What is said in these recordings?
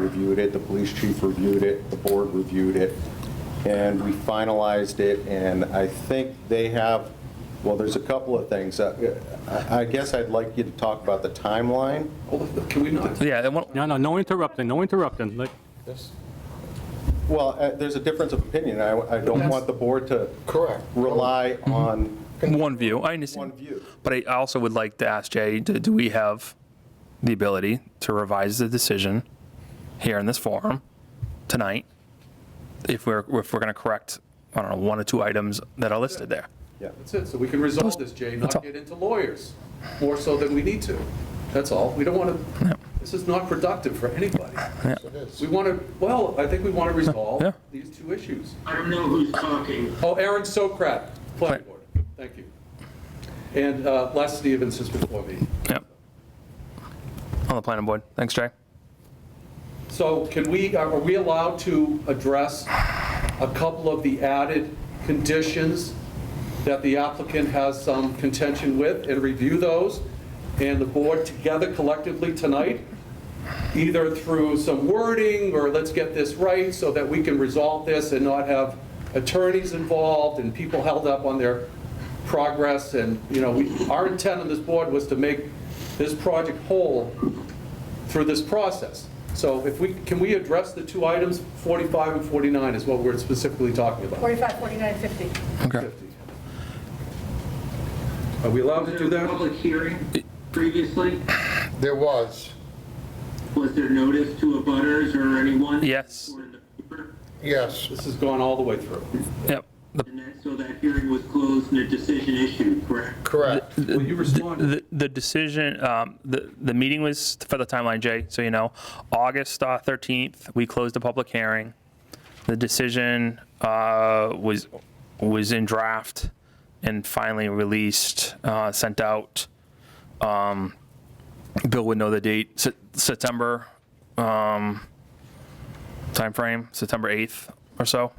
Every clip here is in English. reviewed it, the police chief reviewed it, the board reviewed it, and we finalized it, and I think they have, well, there's a couple of things. Uh, I I guess I'd like you to talk about the timeline. Can we not? Yeah, and one- No, no, no interrupting, no interrupting. Like, Well, uh, there's a difference of opinion. I I don't want the board to Correct. rely on one view, I one understand. view. But I also would like to ask Jay, do do we have the ability to revise the decision here in this forum tonight? If we're, if we're going to correct, I don't know, one or two items that are listed there? Yeah. That's it, so we can resolve this, Jay, That's all. not get into lawyers, more so than we need to. That's all. We don't want to, this is not productive for anybody. We want to, well, I think we want to Yeah. resolve these two issues. I don't know who's talking. Oh, Aaron Sokrat, planning board, thank you. And uh, Les Stevens is before me. Yep. On the planning board. Thanks, Jay. So can we, uh, are we allowed to address a couple of the added conditions that the applicant has some contention with and review those? And the board together collectively tonight, either through some wording or let's get this right so that we can resolve this and not have attorneys involved and people held up on their progress. And, you know, we, our intent on this board was to make this project whole through this process. So if we, can we address the two items, 45 and 49 is what we're specifically talking about? 45, 49, 50. Okay. Are we allowed Was to do there a that? public hearing previously? There was, Was there notice to a butters or anyone? Yes. Or in the paper? yes, This has gone all the way through. Yep. The- And that, so that hearing was closed and a decision issued, correct? correct. Will you respond? The the decision, um, the, the meeting was, for the timeline, Jay, so you know, August uh, 13th, we closed the public hearing. The decision uh, was, was in draft and finally released, uh, sent out. Um, Bill would know the date, Se- September um, timeframe, September 8th or so,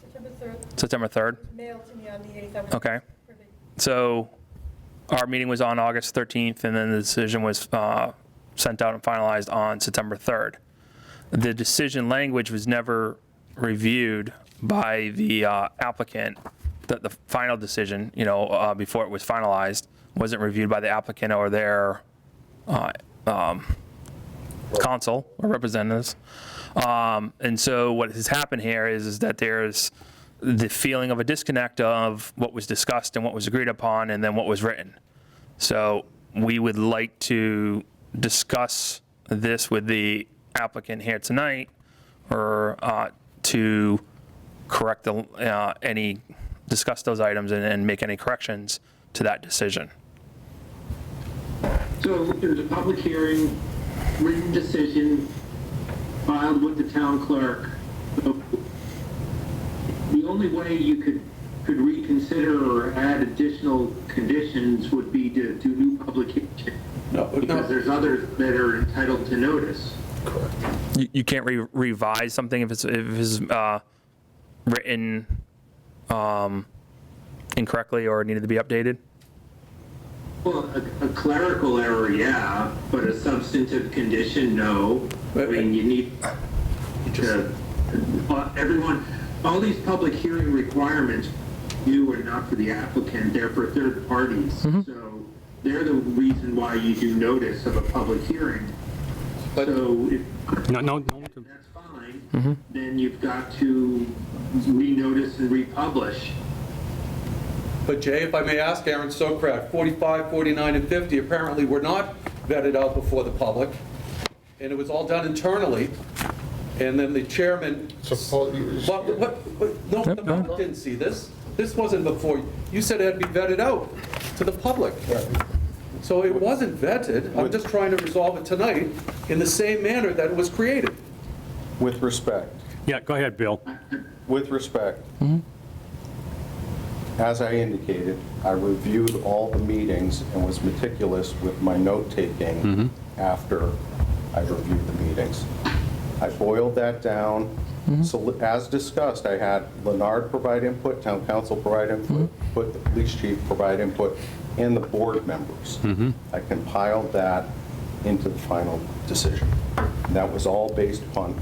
September 3rd, September 3rd. mailed to me on the 8th. I'm not Okay. privy. So our meeting was on August 13th, and then the decision was uh, sent out and finalized on September 3rd. The decision language was never reviewed by the uh, applicant, that the final decision, you know, uh, before it was finalized, wasn't reviewed by the applicant or their uh, um, counsel or representatives. Um, And so what has happened here is, is that there's the feeling of a disconnect of what was discussed and what was agreed upon and then what was written. So we would like to discuss this with the applicant here tonight or uh, to correct the, uh, any, discuss those items and, and make any corrections to that decision. So there's a public hearing, written decision filed with the town clerk. So The only way you could, could reconsider or add additional conditions would be to do new publication. No, Because no, there's others that are entitled to notice. You, you can't re- revise something if it's, if it's uh, written um, incorrectly or needed to be updated? Well, a a clerical error, yeah, but a substantive condition, no. I But- mean, you need to, uh, everyone, all these public hearing requirements, you are not for the applicant, they're for third parties. So they're the reason why you do notice of a public hearing. But- So if no, no, no inter- that's fine, then you've got to renotice and republish. but Jay, if I may ask, Aaron Sokrat, 45, 49, and 50 apparently were not vetted out before the public, and it was all done internally, and then the chairman Suppo- What, what, what- no, the public didn't see this. This wasn't before, you- you said it had to be vetted out to the public. So it wasn't vetted, I'm just trying to resolve it tonight in the same manner that it was created. With respect, yeah, go ahead, Bill. with respect, as I indicated, I reviewed all the meetings and was meticulous with my note-taking after I reviewed the meetings. I boiled that down. So as discussed, I had Leonard provide input, town council provide input, put the police chief provide input, and the board members. I compiled that into the final decision. And That was all based upon